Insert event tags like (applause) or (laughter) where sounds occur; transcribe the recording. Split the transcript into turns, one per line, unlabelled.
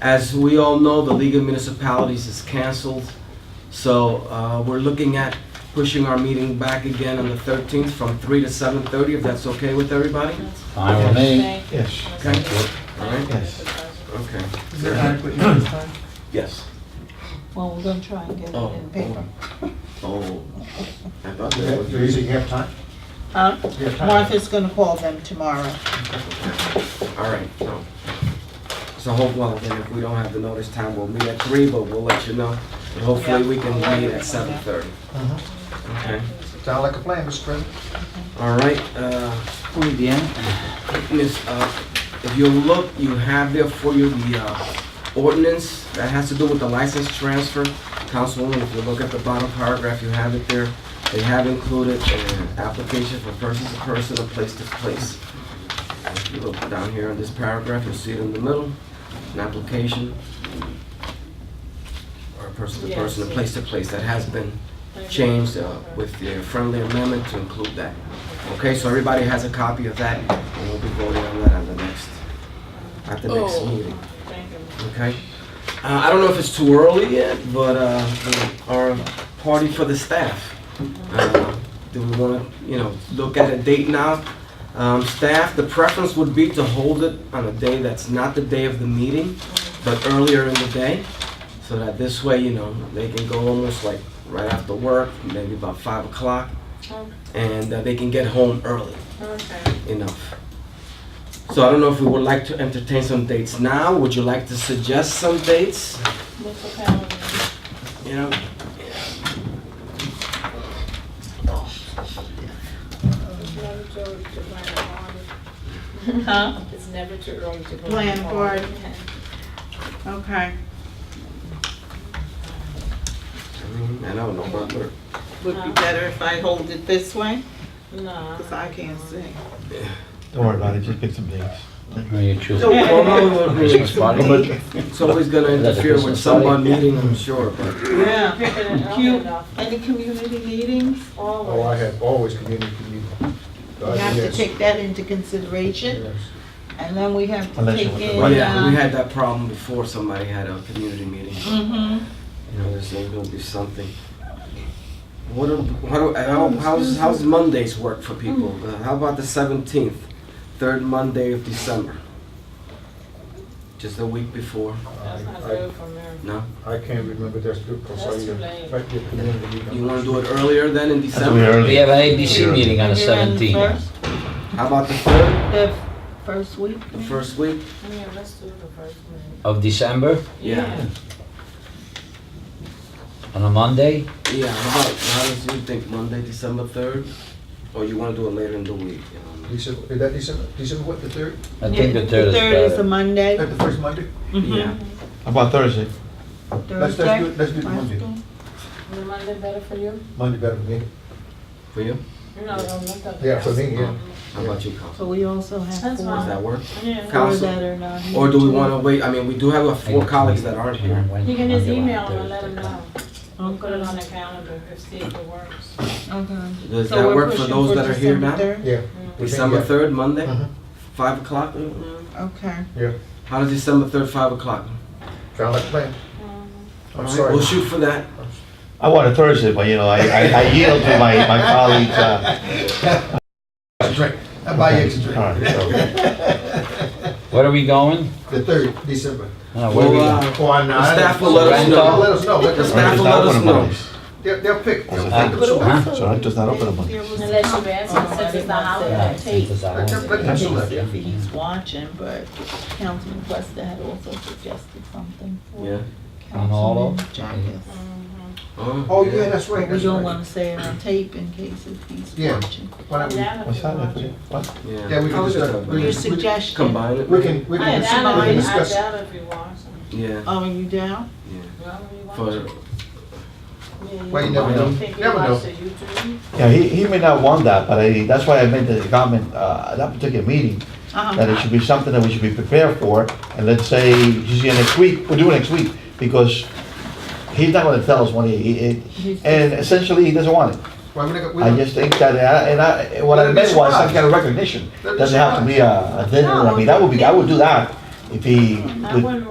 As we all know, the League of Municipalities is canceled, so uh, we're looking at pushing our meeting back again on the 13th from 3 to 7:30, if that's okay with everybody?
Fine with me.
Yes,
Okay. All right,
yes.
okay.
Is there adequate notice time?
Yes.
Well, we're gonna try and get it
Oh,
in paper.
Oh, I thought
You
that
have-
was...
You usually have time?
Huh?
You have time?
Martha's gonna call them tomorrow.
All right, so, so hope, well, then if we don't have the notice time, we'll meet at three, but we'll let you know. And hopefully we can meet at seven thirty,
Uh-huh.
okay?
Sound like a plan, Mr. President?
All right, uh,
Muy bien.
Miss, uh, if you look, you have there for you the, uh, ordinance that has to do with the license transfer. Councilwoman, if you look at the bottom paragraph, you have it there. They have included an application for person to person, or place to place. If you look down here on this paragraph, you'll see it in the middle, an application or person to person, or place to place, that has been changed uh, with the friendly amendment to include that. Okay, so everybody has a copy of that, and we'll be voting on that at the next, at
Oh.
the next meeting. Okay? Uh, I don't know if it's too early yet, but uh, the- our party for the staff. Uh, Do we want to, you know, look at a date now? Um, Staff, the preference would be to hold it on a day that's not the day of the meeting, but earlier in the day, so that this way, you know, they can go almost like right after work, maybe about 5 o'clock,
Um,
and uh, they can get home early enough. So I don't know if we would like to entertain some dates now. Would you like to suggest some dates? You know,
Huh?
It's never too early to. go
Plan
to the
board.
farm.
Okay.
I mean, I don't know about her.
Would be better if I hold it this way,
No.
because I can't see.
Don't worry about it, just get some dates.
Who you choose?
So, well, no, we-
Christmas
we-
party?
it's always gonna interfere with someone meeting, I'm sure, but,
Yeah.
Picking it up
(laughs) You-
enough,
Any community meetings?
always.
Oh, I have always community meeting.
You
Uh,
have to take that into consideration, and then we have to
Unless you
take
want to
in.
but yeah, we
uh,
had that problem before somebody had a community meeting.
mhm.
You know, there's gonna be something. What, do- how, do- how, how's, how's Mondays work for people? Uh, How about the seventeenth, third Monday of December? Just a week before,
That's
Oh,
not good for me.
no?
I can't remember, that's good, because I,
That's too
uh,
late.
right here, community meeting.
You wanna do it earlier then in
That's really
December?
early.
We have an ABC meeting on the
You're in the
17th.
first-
How about the third,
The first week?
the first week?
Yeah, let's do the first one.
of December on a Monday.
Yeah, how about, how does you think, Monday, December third? Or you wanna do it later in the week? you
December, is that December, December what, the third,
I think
Yeah,
the third is
a
better.
Monday.
At the first Monday?
know?
Mhm.
Yeah.
How about Thursday?
Let's, let's do, it- let's do it Monday,
Is Monday better for you?
Monday better for me.
For you?
You know, don't look up.
Yeah, for me, yeah.
How about you, Council?
So uh, we also have
That's
Does
four,
fine.
that work?
Yeah.
four
Council.
that are not here.
Or do we wanna wait, I mean, we do have uh,
I
four
got
colleaagues
two
that aren't
meetings
here.
on Wednesday,
You can just
Monday,
email them
Thursday.
and let them know. We'll put it on the calendar if see if it works.
Okay.
Does
So
that
we're
work for
pushing
those that are here
December
now?
third? Mm-hmm.
Yeah. we think,
December
yeah.
third, Monday,
Uh-huh.
five o'clock?
Okay.
Yeah,
How does December third, five o'clock?
sound like a plan,
All
I'm
right,
sorry.
We'll shoot for that.
I want a Thursday, but you know, I, I I yield to my, my colleagues. uh,
Drink, I buy you extra
all right,
drink.
so-
Where are we going?
The third, December.
Uh, where are we
Well,
going?
uh,
Or not.
The staff will let
us know.
Let us know, let
The
us
staff
know.
It's
will
not
let us
open on
know.
Mondays.
They'll, they'll pick, they'll
Uh,
pick the choice.
huh?
So it's just not open on
There
Mondays.
was
Unless
some-
you've asked, since it's the
Yeah,
holiday.
since it's a
Let them- let them
holiday.
select, yeah.
if He's watching, but Councilman Questa had also suggested something
Yeah.
for
On all
Councilman
of-
Jacobs.
Oh, yeah, that's right,
We
that's
don't
right.
wanna say it on tape in case if he's
Yeah.
watching.
Why don't we-
What's that? What?
Yeah.
Yeah, we can
I'll
just,
just,
uh,
uh,
we-
Your
we-
suggestion,
Combine it.
We can, we
I
can,
doubt if
we can
you, I
discuss.
doubt if you want some.
Yeah,
oh, are you down?
yeah.
Well, you want
For,
some. Yeah,
Well, you never know.
Think you
Never know.
watch the YouTube?
Yeah, he, he may not want that, but I, that's why I made the comment, uh, at that particular meeting, that it
Uh-huh.
should be something that we should be prepared for. And let's say, he's here next week, we'll do it next week, because he's not gonna tell us when he- he, he, and essentially, he doesn't want it.
Well, we're not- we're
I
not-
just think that, uh, and I, what I meant was some kind of recognition. Doesn't have to be a, a dinner, I mean, that would be, I would do that if he
I
would
wouldn't